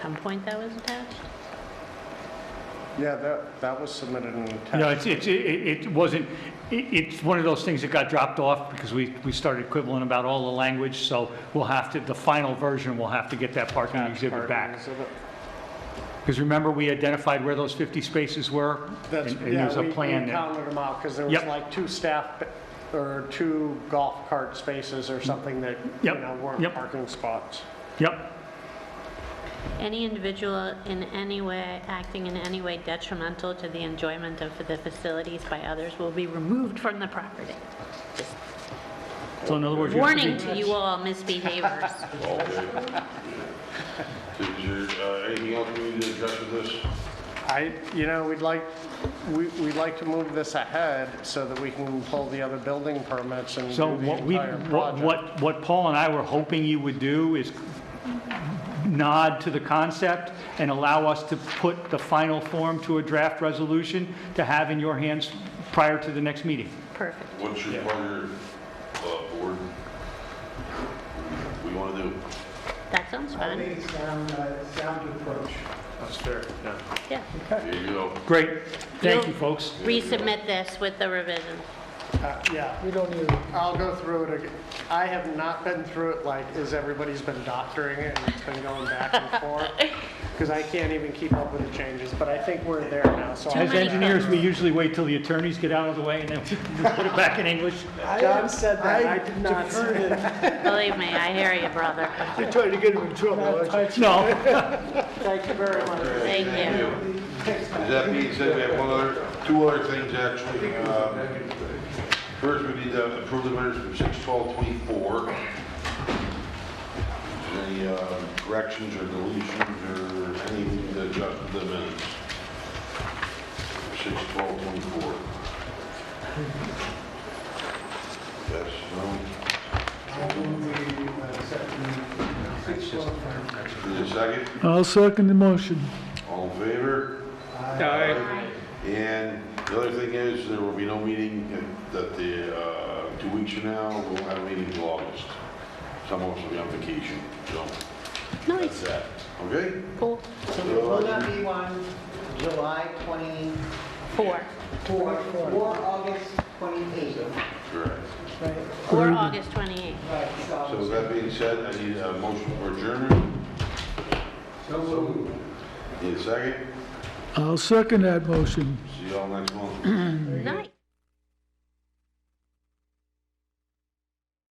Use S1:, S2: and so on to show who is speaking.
S1: some point that was attached?
S2: Yeah, that, that was submitted in text.
S3: No, it's, it's, it it wasn't, it- it's one of those things that got dropped off because we, we started quibbling about all the language, so we'll have to, the final version, we'll have to get that parking exhibit back. Because remember, we identified where those 50 spaces were?
S2: That's,
S3: and- And
S2: yeah,
S3: there's
S2: we
S3: a
S2: we
S3: plan there.
S2: counted them out, because there was
S3: Yep.
S2: like two staff, or two golf cart spaces or something that, you
S3: Yep,
S2: know, weren't
S3: yep.
S2: parking spots.
S3: Yep,
S1: Any individual in any way, acting in any way detrimental to the enjoyment of the facilities by others will be removed from the property.
S3: so in other words. you have to be-
S1: Warning to you all misbehaviors.
S4: All day. Did you, uh, anything else we need to address with this?
S2: I, you know, we'd like, we, we'd like to move this ahead so that we can pull the other building permits and do
S3: So
S2: the
S3: what we,
S2: entire
S3: what,
S2: project.
S3: what, what Paul and I were hoping you would do is nod to the concept and allow us to put the final form to a draft resolution to have in your hands prior to the next meeting.
S1: Perfect.
S4: What's your pleasure, uh, board? We want to do?
S1: That sounds
S5: I
S1: fun.
S5: think it's sound, uh, sound approach.
S1: Yeah.
S4: There you go.
S3: Great. Thank you,
S1: You'll-
S3: folks.
S1: Resubmit this with the revision.
S2: Uh, Yeah. We don't need. I'll go through it again. I have not been through it like, as everybody's been doctoring it and it's been going back and forth. Because I can't even keep up with the changes, but I think we're there now, so.
S1: Too
S3: As
S2: I'll-
S1: many
S3: engineers, we
S1: things.
S3: usually wait till the attorneys get out of the way and then we put it back in English.
S5: I haven't said that, I did not
S2: deferred
S5: say that.
S1: Believe me, I hear you, brother.
S3: No.
S2: Thank you very much.
S1: Thank you.
S4: Does that being said, we have one other, two other things actually. Um, First, we need to approve the minutes from six twelve twenty-four. Any uh, corrections or deletions or any that adjust to the minutes? Six twelve twenty-four. Yes, no,
S5: I will be accepting six twelve.
S4: need a second?
S6: I'll second the motion.
S4: All in favor? And the other thing is, there will be no meeting in- that the, uh, two weeks from now, we'll have a meeting in August. Some of us will be on vacation, so that's
S1: Nice,
S4: that. Okay?
S1: cool.
S5: So there will not be one July 24
S1: Four.
S5: or August 28.
S4: Correct.
S5: Right,
S1: Or August 28th.
S5: right,
S4: So
S5: so.
S4: with that being said, I need a motion for adjournment.
S5: So moved.
S4: Need a second?
S6: I'll second that motion.
S4: See y'all next month.
S1: Nice.